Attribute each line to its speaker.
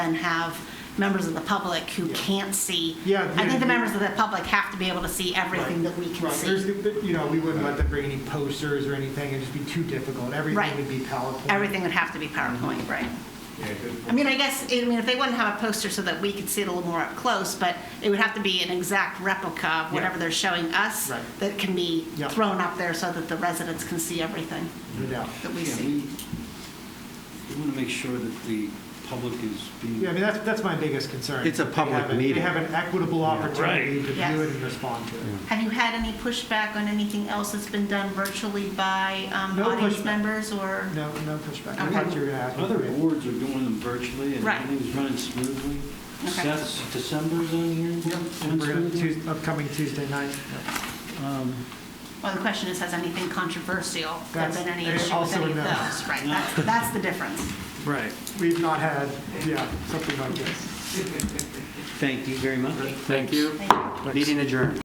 Speaker 1: than have members of the public who can't see.
Speaker 2: Yeah,
Speaker 1: I think the
Speaker 2: yeah.
Speaker 1: members of the public have to be able to see everything that we can
Speaker 2: Right, there's,
Speaker 1: see.
Speaker 2: you know, we wouldn't let them bring any posters or anything, it'd just be too difficult.
Speaker 1: Right.
Speaker 2: Everything would be PowerPoint.
Speaker 1: Everything would have to be PowerPoint, right?
Speaker 3: Yeah, good
Speaker 1: I mean, I guess, I mean, if they wouldn't have a poster so that we could see it a little more up close, but it would have to be an exact replica of whatever
Speaker 2: Yeah.
Speaker 1: they're showing us
Speaker 2: Right.
Speaker 1: that can be
Speaker 2: Yeah.
Speaker 1: thrown up there so that the residents can see everything
Speaker 2: No doubt.
Speaker 1: that we
Speaker 4: Yeah,
Speaker 1: see.
Speaker 4: We want to make sure that the public is being,
Speaker 2: Yeah, I mean, that's, that's my biggest concern.
Speaker 5: It's a
Speaker 2: They
Speaker 5: public
Speaker 2: have a- They
Speaker 5: meeting.
Speaker 2: have an equitable opportunity to view
Speaker 1: Yes.
Speaker 2: it and respond to it.
Speaker 1: Have you had any pushback on anything else that's been done virtually by um,
Speaker 2: No
Speaker 1: audience
Speaker 2: pushback.
Speaker 1: members or?
Speaker 2: No, no pushback. I
Speaker 1: Okay.
Speaker 2: thought you were gonna ask. me.
Speaker 4: other boards are doing them virtually, and
Speaker 1: Right.
Speaker 4: everything's running smoothly.
Speaker 1: Okay.
Speaker 4: Seth's, December's on here?
Speaker 2: We're gonna- Tues- Upcoming Tuesday night.
Speaker 1: Well, the question is, has anything controversial, there
Speaker 2: That's-
Speaker 1: been any
Speaker 2: and
Speaker 1: issue with
Speaker 2: also
Speaker 1: any of
Speaker 2: no.
Speaker 1: those? Right, that's, that's the difference.
Speaker 5: Right.
Speaker 2: We've not had, yeah, something like this.
Speaker 5: Thank you very much.
Speaker 6: Thank you.
Speaker 1: Thank you.
Speaker 5: Meeting adjourned.